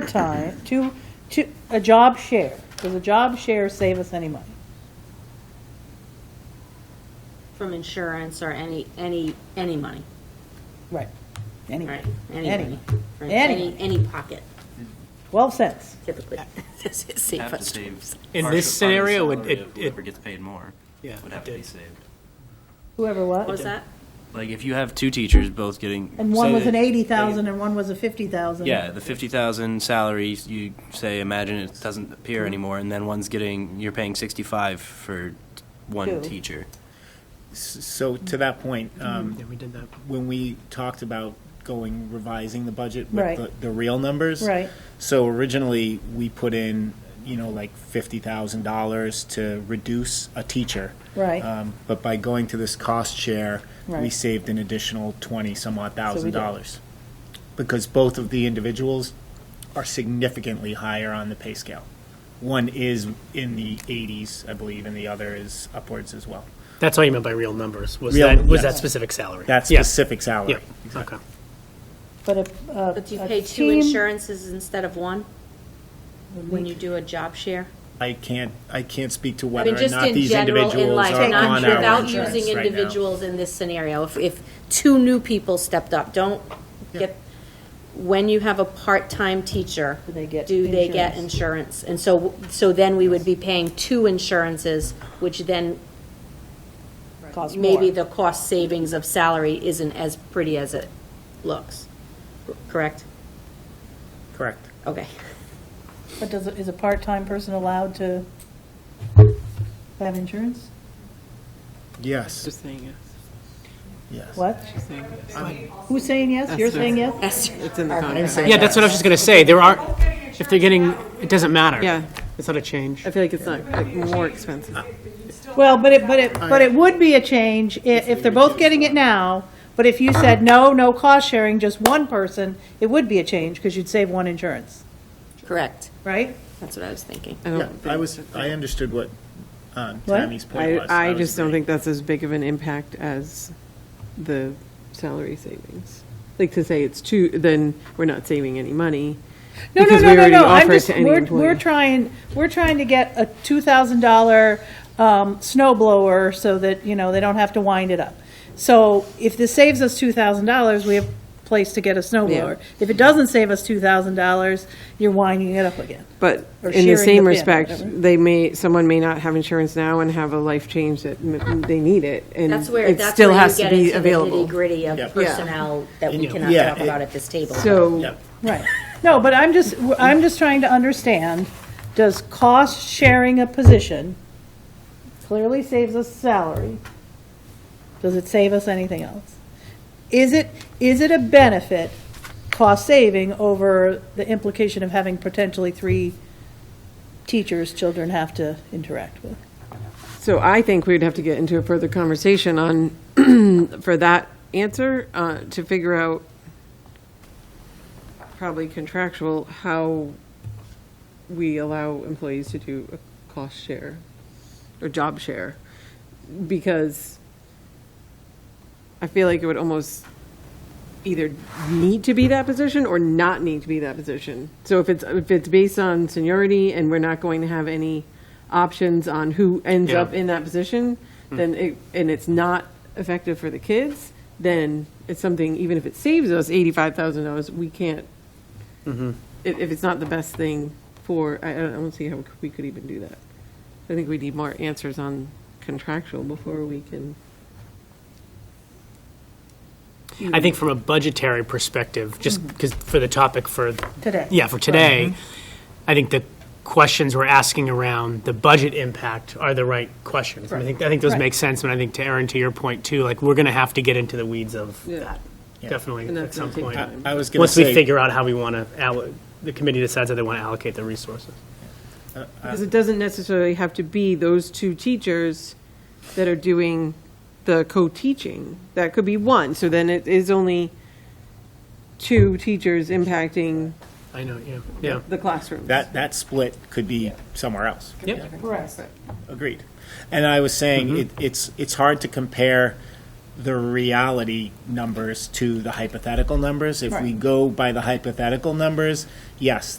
part-time, to, to, a job share? Does a job share save us any money? From insurance or any, any, any money, Right. Anyway, right? Any Any. money. From Any. Any, any pocket twelve cents. typically. Save have to us save times. In partial this fund scenario, it- salary it- of it- Whoever gets paid more Yeah, would have it to be did. saved. Whoever What was what? that? Like, if you have two teachers both getting. And one say was an that- eighty thousand and one was a fifty thousand. Yeah, the fifty thousand salary, you say, imagine it doesn't appear Hmm. anymore, and then one's getting, you're paying sixty-five for Two. one teacher. So to that point, um, Mm-hmm. Yeah, we did that. when we talked about going, revising the budget Right. with the, the real numbers. Right. So originally, we put in, you know, like fifty thousand dollars to reduce a teacher. Right. Um, But by going to this cost share, we Right. saved an additional twenty some odd thousand did. dollars. Because both of the individuals are significantly higher on the pay scale. One is in the eighties, I believe, and the other is upwards as well. That's what you meant by real numbers, was Real- that, was yes. that specific salary? That Yeah, specific salary. Yeah, okay. But uh, a, a. But do you a pay two team- insurances instead of one when you do a job share? I can't, I can't speak to I whether mean, or just not in these general, in individuals life, are on not our without insurance using right now. individuals in this scenario. If, if two new people stepped up, don't get, when you have a part-time teacher, Do they get do they get insurance? insurance? And so, so then we would be paying two insurances, which then Costs more. maybe the cost savings of salary isn't as pretty as it looks, correct? Correct. Okay. But does, a- is a part-time person allowed to have insurance? Yes, saying yes. yes. What? saying Who's saying yes? You're saying yes? It's in the contract. Yeah, that's what I was just gonna say, there are, if they're getting, it doesn't matter. Yeah. It's not a change. I feel like it's not like, more expensive. Well, but it, but it, but it would be a change i- if they're both getting it now, but if you said, no, no cost sharing, just one person, it would be a change, because you'd save one insurance, Correct. right? That's what I was thinking. I Yeah, don't I think- was, I understood what um, What? Tammy's point was. I, I was just don't agreeing. think that's as big of an impact as the salary savings. Like to say it's two, then we're not saving any money. No, no, because no, we no, already no, I'm offer it just, to any we're, employee. we're trying, we're trying to get a two thousand dollar, um, snow blower so that, you know, they don't have to wind it up. So if this saves us two thousand dollars, we have a place to get a snow Yeah. blower. If it doesn't save us two thousand dollars, you're winding it up again. But Or in sharing the the same bin, respect, whatever. they may, someone may not have insurance now and have a life change that m- they need it, and That's where, it that's still where you has to get be into the available. nitty gritty of Yeah. personnel that we Yeah. cannot Yeah, talk it- about at this table. So, Yep. Right. No, but I'm just, I'm just trying to understand, does cost sharing a position clearly saves us salary? Does it save us anything else? Is it, is it a benefit, cost saving, over the implication of having potentially three teachers children have to interact with? so I think we'd have to get into a further conversation on, for that answer, uh, to figure out, probably contractual, how we allow employees to do a cost share or job share. Because I feel like it would almost either need to be that position or not need to be that position. So if it's, if it's based on seniority and we're not going to have any options on who ends Yeah. up in that position, then it, and it's not effective for the kids, then it's something, even if it saves us eighty-five thousand dollars, we can't, if, if it's not the best thing for, I I don't, I don't see how we could even do that. I think we need more answers on contractual before we can. Mm-hmm. I think from a budgetary perspective, just because for the topic for, Today? yeah, for today, Mm-hmm. I think the questions we're asking around the budget impact are the right questions. And I think, I think those Right. make sense, and I think to Aaron, to your point too, like, we're gonna have to get into the weeds of that, definitely, And at that's some gonna take point. time. I was going to Once we say, figure out how we wanna, allo- the committee decides how they wanna allocate the resources. Because it doesn't necessarily have to be those two teachers that are doing the co-teaching. That could be one, so then it is only two teachers impacting I know, yeah, yeah. the classrooms. that, that split could be somewhere else. Yep. Agreed. And I was saying, it, it's, it's hard to compare the reality numbers to the hypothetical numbers. If we go by the hypothetical numbers, yes,